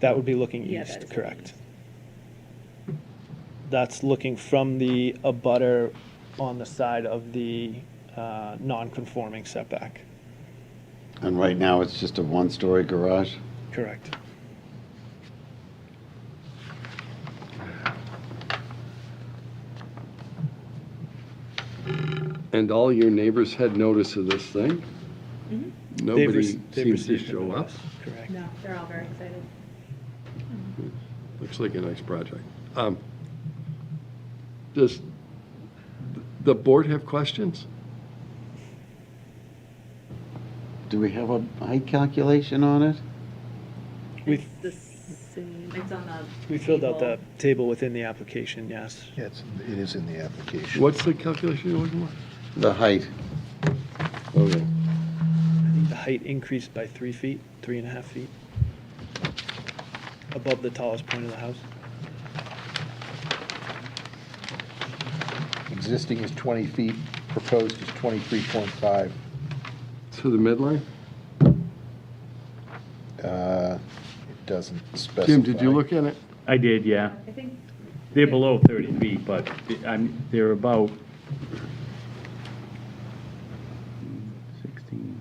That would be looking Yeah, that is east, looking correct. That's looking from the abutter on the side of the uh, non-conforming setback, And right now, it's just a one-story garage? correct. And all your neighbors had notice of this thing? They've Nobody rec- they've seems to received the show up. notice, Correct. No, they're all very excited. Looks like a nice project. Um, Does th- the board have questions? Do we have a height calculation on it? We, It's the same, it's on the. we filled out table. the table within the application, yes. Yeah, it's, it is in the application. What's the calculation you're looking for? The height. Okay. I think the height increased by three feet, three and a half feet, above the tallest point of the house. Existing is 20 feet, proposed is 23.5. To the midline? Uh, It doesn't specify. Jim, did you look at it? I did, yeah. I think They're below 30 feet, but the- I'm, they're about 16.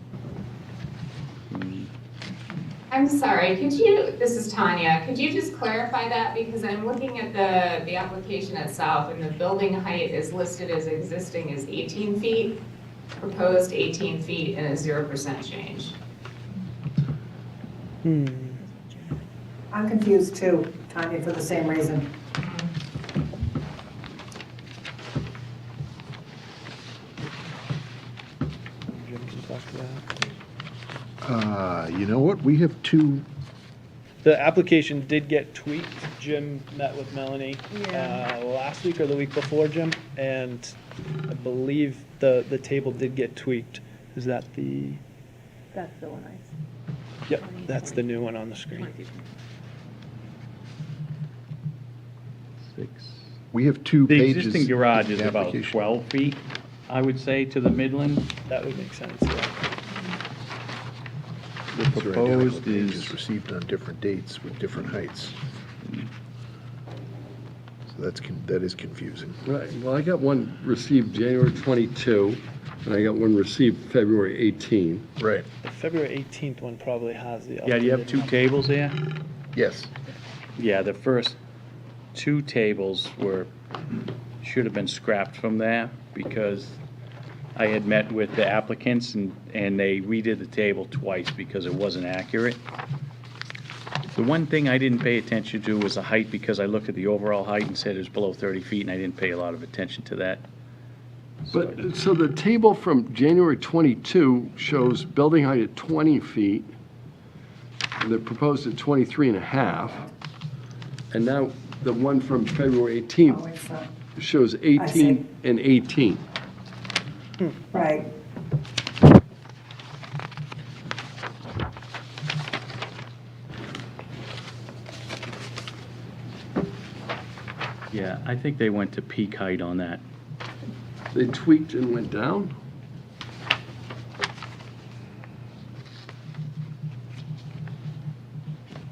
I'm sorry, could you, this is Tanya, could you just clarify that? Because I'm looking at the, the application itself, and the building height is listed as existing as 18 feet, proposed 18 feet, and a 0% change. I'm confused too, Tanya, for the same reason. Jim can talk to that. Uh, You know what, we have two, The application did get tweaked. Jim met with Melanie Yeah. uh, last week or the week before, Jim, and I believe the, the table did get tweaked. Is that the, that's the one I. s- yep, that's the new one on the screen. we have two The pages. existing garage of is the about application. 12 feet, I would say, to the midland. That would make sense, yeah. These are The identical proposed pages is, Received on different dates with different heights. So that's, con- that is confusing. Right, well, I got one received January 22, and I got one received February 18. Right. The February eighteenth one probably has the. yeah, do you have updated two number. tables there? Yes. Yeah, the first two tables were, should have been scrapped from there because I had met with the applicants and, and they redid the table twice because it wasn't accurate. The one thing I didn't pay attention to was the height because I looked at the overall height and said it was below 30 feet and I didn't pay a lot of attention to that. But, so the table from January 22 shows building height at 20 feet, and they're proposed at 23 and a half. And now the one from February Oh, 18th it's, uh, shows see. 18 and 18. Right. Yeah, I think they went to peak height on that. They tweaked and went down?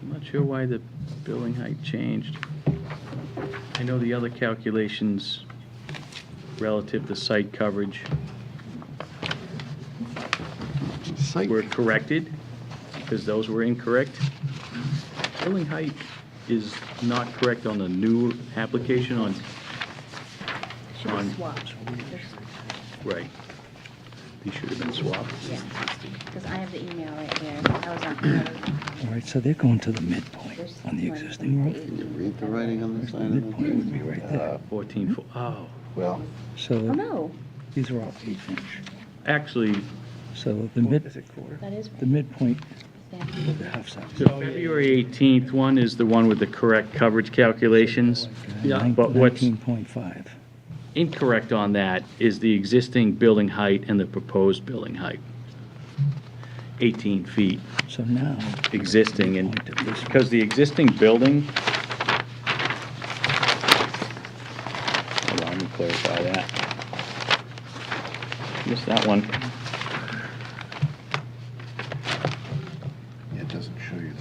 I'm not sure why the building height changed. I know the other calculations relative to site coverage Site, were corrected, because those were incorrect. Building height is not correct on the new application on, Should have On- swapped. right. These should have been swapped. Yeah, because I have the email right here. That was on. All right, so they're going to the midpoint on the existing road. Can you read the writing on the side of Midpoint it? would be right there. 14, fo- oh, Well, Oh, So no, these are all eight inch. actually, So the Is mid, it quarter? that is right. the midpoint Yeah. of the half size. the February 18th one is the one with the correct coverage calculations. Nine- But what's 19.5. incorrect on that is the existing building height and the proposed building height. 18 feet So now, existing, and because the existing building, hold on, let me clarify that. Missed that one.